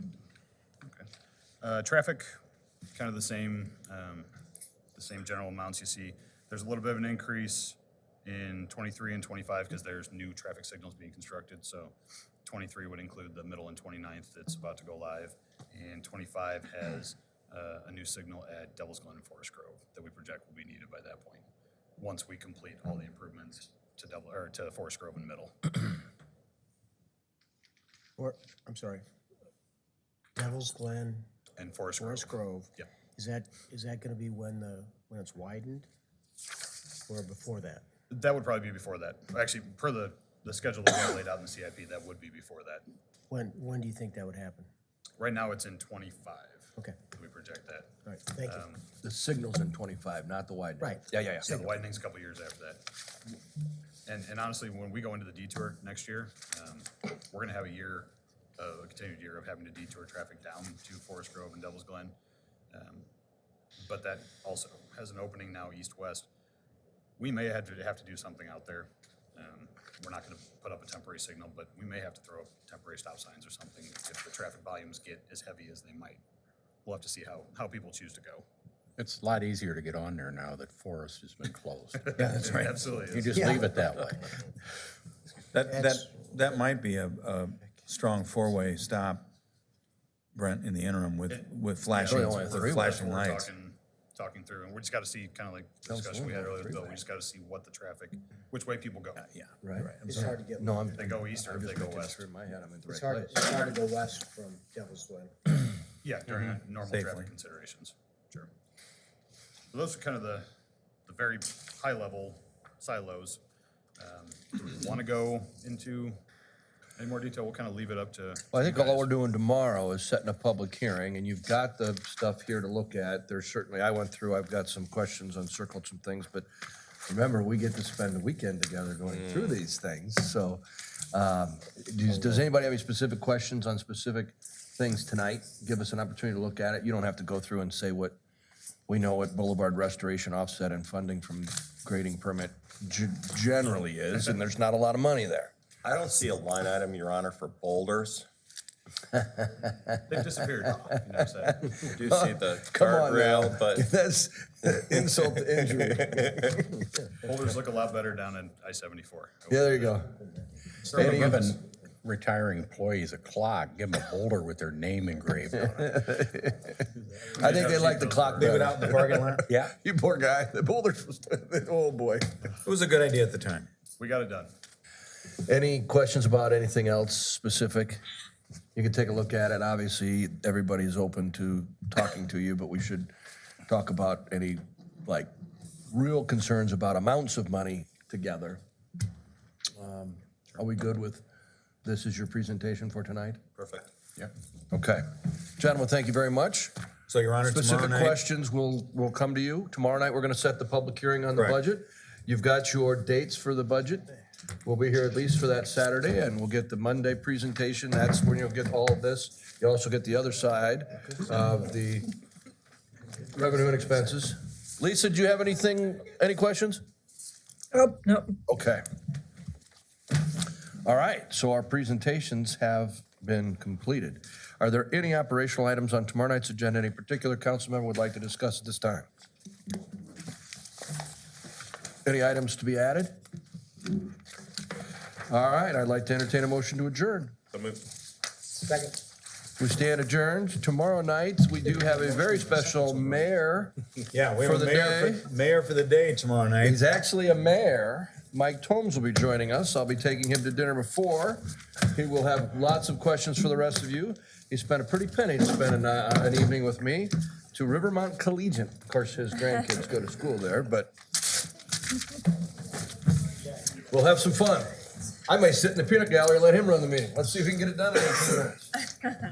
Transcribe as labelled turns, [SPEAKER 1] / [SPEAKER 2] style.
[SPEAKER 1] Uh, Traffic, kind of the same, um, the same general amounts you see. There's a little bit of an increase in 23 and 25 because there's new traffic signals being constructed. So 23 would include the middle and 29th that's about to go live. And 25 has uh, a new signal at Devil's Glen and Forest Grove that we project will be needed by that point, once we complete all the improvements to Devil, or to Forest Grove and Middle.
[SPEAKER 2] Or, I'm sorry. Devil's Glen,
[SPEAKER 1] And Forest Grove.
[SPEAKER 2] Forest Grove.
[SPEAKER 1] Yep.
[SPEAKER 2] Is that, is that gonna be when the, when it's widened? Or before that?
[SPEAKER 1] That would probably be before that. Actually, per the, the schedule that we have laid out in the CIP, that would be before that.
[SPEAKER 2] When, when do you think that would happen?
[SPEAKER 1] Right now, it's in twenty-five.
[SPEAKER 2] Okay,
[SPEAKER 1] We project that.
[SPEAKER 2] all right, thank you.
[SPEAKER 3] The signal's in twenty-five, not the widening.
[SPEAKER 2] Right.
[SPEAKER 3] Yeah, yeah,
[SPEAKER 1] Yeah,
[SPEAKER 3] yeah.
[SPEAKER 1] the widening's a couple years after that. And, and honestly, when we go into the detour next year, um, we're gonna have a year, uh, a continued year of having to detour traffic down to Forest Grove and Devil's Glen. Um, But that also has an opening now east-west. We may have to, have to do something out there. Um, We're not gonna put up a temporary signal, but we may have to throw up temporary stop signs or something if the traffic volumes get as heavy as they might. We'll have to see how, how people choose to go.
[SPEAKER 4] It's a lot easier to get on there now that Forest has been closed.
[SPEAKER 1] That's right. Absolutely.
[SPEAKER 4] You
[SPEAKER 1] is.
[SPEAKER 4] just leave it that way.
[SPEAKER 5] That, that, that might be a, a strong four-way stop, Brent, in the interim with, with flashing,
[SPEAKER 3] only
[SPEAKER 5] with
[SPEAKER 3] three way.
[SPEAKER 5] flashing
[SPEAKER 1] We're
[SPEAKER 5] lights.
[SPEAKER 1] talking, talking through, and we just gotta see, kind of like the discussion we had earlier, Bill, we just gotta see what the traffic, which way people
[SPEAKER 3] Uh,
[SPEAKER 1] go.
[SPEAKER 5] Yeah.
[SPEAKER 3] Right.
[SPEAKER 2] It's hard to get,
[SPEAKER 3] No, I'm.
[SPEAKER 1] They go east or if they go west.
[SPEAKER 3] In my head, I'm in the
[SPEAKER 2] it's
[SPEAKER 3] right
[SPEAKER 2] hard,
[SPEAKER 3] place.
[SPEAKER 2] it's hard to go west from Devil's Glen.
[SPEAKER 1] Yeah, during a
[SPEAKER 3] Mm-hmm.
[SPEAKER 1] normal
[SPEAKER 5] Safely.
[SPEAKER 1] traffic considerations, sure. So Those are kind of the, the very high level silos. Um, Do we wanna go into any more detail? We'll kind of leave it up to.
[SPEAKER 3] Well, I think all we're doing tomorrow is setting a public hearing, and you've got the stuff here to look at. There's certainly, I went through, I've got some questions, uncircled some things, but remember, we get to spend the weekend together going through these things, so. um, Does, does anybody have any specific questions on specific things tonight? Give us an opportunity to look at it. You don't have to go through and say what, we know what Boulevard Restoration Offset and funding from grading permit ge- generally is, and there's not a lot of money there.
[SPEAKER 6] I don't see a line item, Your Honor, for boulders.
[SPEAKER 1] They've disappeared, you know, so.
[SPEAKER 6] I do see the
[SPEAKER 3] Come on now.
[SPEAKER 6] guardrail, but
[SPEAKER 3] That's insult to injury.
[SPEAKER 1] Boulders look a lot better down in I seventy-four.
[SPEAKER 3] Yeah, there you go.
[SPEAKER 4] Instead of giving retiring employees a clock, give them a boulder with their name engraved on it.
[SPEAKER 3] I think they like the clock
[SPEAKER 1] Leave
[SPEAKER 3] better.
[SPEAKER 5] in the parking lot?
[SPEAKER 4] Yeah.
[SPEAKER 3] You poor guy. The boulders was, oh boy.
[SPEAKER 5] It was a good idea at the time.
[SPEAKER 1] We got it done.
[SPEAKER 3] Any questions about anything else specific? You can take a look at it. Obviously, everybody's open to talking to you, but we should talk about any, like, real concerns about amounts of money together. Um, Are we good with, this is your presentation for tonight?
[SPEAKER 6] perfect.
[SPEAKER 3] Okay. Gentlemen, thank you very much.
[SPEAKER 5] So Your Honor,
[SPEAKER 3] Specific questions will, will come to you. Tomorrow night, we're going to set the public hearing on the
[SPEAKER 5] Correct.
[SPEAKER 3] budget. You've got your dates for the budget. We'll be here at least for that Saturday, and we'll get the Monday presentation. That's when you'll get all of this. You also get the other side of the revenue and expenses. Lisa, do you have anything, any questions?
[SPEAKER 7] Oh, no,
[SPEAKER 3] Okay. All right, so our presentations have been completed. Are there any operational items on tomorrow night's agenda any particular council member would like to discuss at this time? Any items to be added? All right, I'd like to entertain a motion to adjourn.
[SPEAKER 6] So move.
[SPEAKER 2] Second.
[SPEAKER 3] We stand adjourned. Tomorrow night, we do have a very special mayor.
[SPEAKER 5] Yeah, we
[SPEAKER 3] have a For the mayor for-
[SPEAKER 5] mayor for the day tomorrow night.
[SPEAKER 3] He's actually a mayor. Mike Tomes will be joining us. I'll be taking him to dinner before. He will have lots of questions for the rest of you. He spent a pretty penny to spend an, uh, an evening with me to Rivermont Collegiate. Of course, his grandkids go to school there, but we'll have some fun. I may sit in the peanut gallery, and let him run the meeting. Let's see if we can get it done. in a few minutes.